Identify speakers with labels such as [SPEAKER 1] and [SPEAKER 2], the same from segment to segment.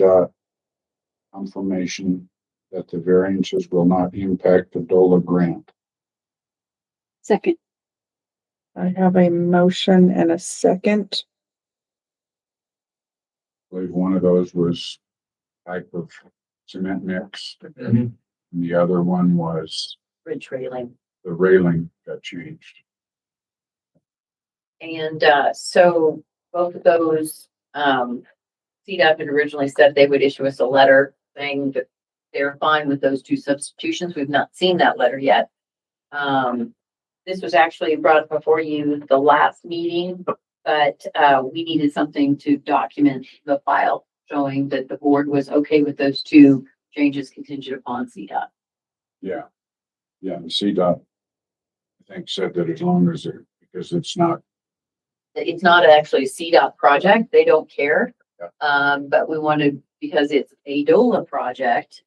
[SPEAKER 1] dot confirmation that the variances will not impact the DOLA grant.
[SPEAKER 2] Second,
[SPEAKER 3] I have a motion and a second.
[SPEAKER 1] I believe one of those was type of cement mix. And
[SPEAKER 4] Mhm.
[SPEAKER 1] the other one was
[SPEAKER 4] bridge railing.
[SPEAKER 1] the railing got changed.
[SPEAKER 4] And, uh, so both of those, um, CDAP had originally said they would issue us a letter saying that they're fine with those two substitutions. We've not seen that letter yet. Um, this was actually brought up before you the last meeting, but, uh, we needed something to document the file showing that the board was okay with those two changes contingent upon CDAP.
[SPEAKER 1] Yeah. Yeah, and CDOT, I think said that as long as it, because it's not,
[SPEAKER 4] it's not actually a CDOT project, they don't care.
[SPEAKER 1] Yeah.
[SPEAKER 4] Um, but we wanted, because it's a DOLA project,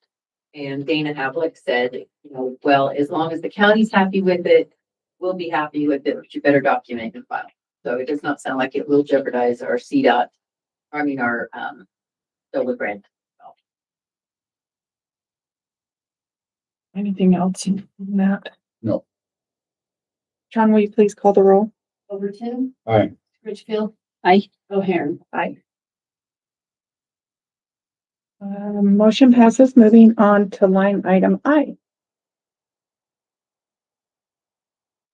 [SPEAKER 4] and Dana Havlick said, you know, well, as long as the county's happy with it, we'll be happy with it, but you better document and file. So it does not sound like it will jeopardize our CDOT, I mean, our, um, DOLA grant.
[SPEAKER 3] Anything else in that?
[SPEAKER 1] No.
[SPEAKER 3] John, will you please call the roll?
[SPEAKER 4] Overton,
[SPEAKER 1] I,
[SPEAKER 4] Ridgefield,
[SPEAKER 2] I,
[SPEAKER 4] O'Hare.
[SPEAKER 3] Aye. Uh, motion passes. Moving on to line item I.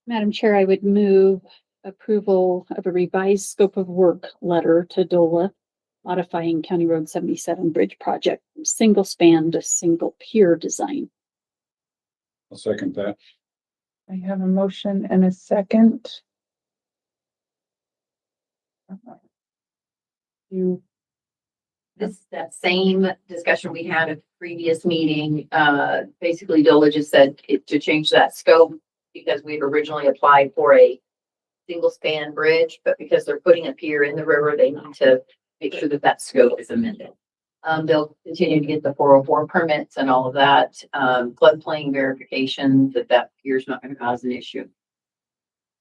[SPEAKER 2] Madam Chair, I would move approval of a revised scope of work letter to DOLA modifying County Road seventy-seven bridge project from single span to single pier design.
[SPEAKER 1] I'll second that.
[SPEAKER 3] I have a motion and a second. You,
[SPEAKER 4] This, that same discussion we had at the previous meeting, uh, basically Dola just said it- to change that scope because we had originally applied for a single span bridge, but because they're putting a pier in the river, they need to make sure that that scope is amended. Um, they'll continue to get the four oh four permits and all of that, um, floodplain verification that that pier is not going to cause an issue.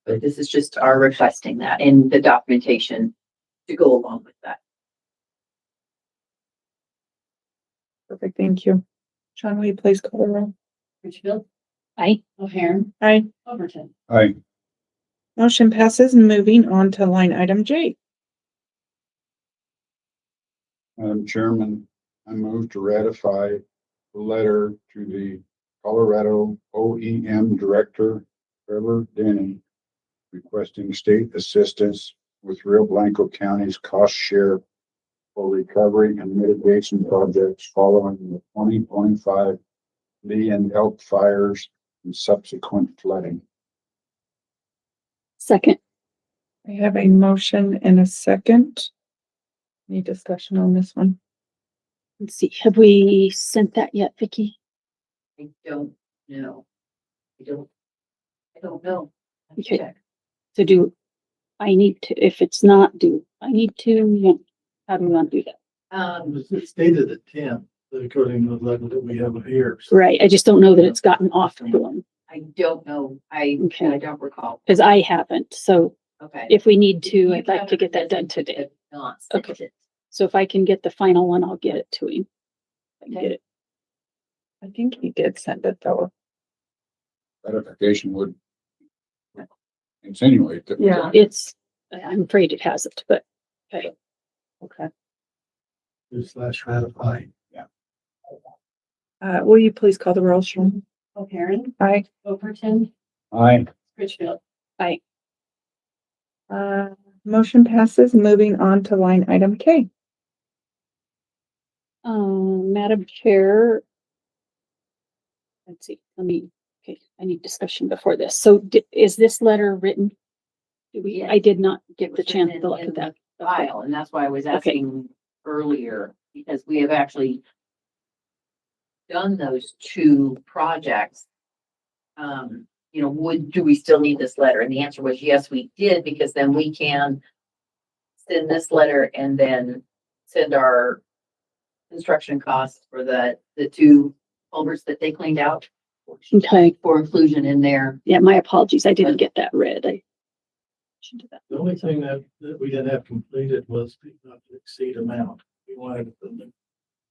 [SPEAKER 4] But this is just our requesting that and the documentation to go along with that.
[SPEAKER 3] perfect, thank you. John, will you please call the roll?
[SPEAKER 4] Richfield,
[SPEAKER 2] I,
[SPEAKER 4] O'Hare,
[SPEAKER 3] Aye.
[SPEAKER 4] Overton.
[SPEAKER 1] I,
[SPEAKER 3] Motion passes. Moving on to line item J.
[SPEAKER 1] Madam Chairman, I move to ratify the letter to the Colorado OEM Director Trevor Denny requesting state assistance with Rio Blanco County's cost share for recovery and mitigation projects following the twenty twenty-five Lee and Elk fires and subsequent flooding.
[SPEAKER 2] second,
[SPEAKER 3] I have a motion and a second. Any discussion on this one?
[SPEAKER 2] let's see, have we sent that yet, Vicky?
[SPEAKER 4] I don't know. I don't. I don't know. I have to
[SPEAKER 2] Okay.
[SPEAKER 4] check.
[SPEAKER 2] To do, I need to, if it's not due, I need to, how do we want to do that?
[SPEAKER 4] Um,
[SPEAKER 5] It's stated at ten, according to the letter that we have here. So
[SPEAKER 2] Right, I just don't know that it's gotten off the one,
[SPEAKER 4] I don't know. I,
[SPEAKER 2] Okay.
[SPEAKER 4] I don't recall.
[SPEAKER 2] because I haven't, so
[SPEAKER 4] Okay.
[SPEAKER 2] if we need to,
[SPEAKER 4] You
[SPEAKER 2] I'd like
[SPEAKER 4] have
[SPEAKER 2] to get
[SPEAKER 4] it
[SPEAKER 2] that done
[SPEAKER 4] as if
[SPEAKER 2] today.
[SPEAKER 4] it's Not.
[SPEAKER 2] Okay.
[SPEAKER 4] sent.
[SPEAKER 2] So if I can get the final one, I'll get it to him. I can get
[SPEAKER 4] Okay.
[SPEAKER 2] it.
[SPEAKER 3] I think he did send it though.
[SPEAKER 1] Ratification would insinuate that.
[SPEAKER 3] Yeah.
[SPEAKER 2] It's, I- I'm afraid it hasn't, but, okay. Okay.
[SPEAKER 5] slash ratify.
[SPEAKER 3] Uh, will you please call the roll, Sharon?
[SPEAKER 4] O'Hairn,
[SPEAKER 3] Aye.
[SPEAKER 4] Overton,
[SPEAKER 1] I,
[SPEAKER 4] Richfield.
[SPEAKER 3] Uh, motion passes. Moving on to line item K.
[SPEAKER 2] Um, Madam Chair. Let's see, let me, okay, I need discussion before this. So di- is this letter written? Do we, I did not get the chance to look at that. Okay.
[SPEAKER 4] File, and that's why I was
[SPEAKER 2] Okay.
[SPEAKER 4] asking earlier, because we have actually done those two projects. Um, you know, would, do we still need this letter? And the answer was yes, we did, because then we can send this letter and then send our construction costs for the, the two culverts that they cleaned out
[SPEAKER 2] Okay,
[SPEAKER 4] for inclusion in there.
[SPEAKER 2] yeah, my apologies. I didn't get that read. I should do that.
[SPEAKER 5] The only thing that, that we didn't have completed was the not to exceed amount. We wanted the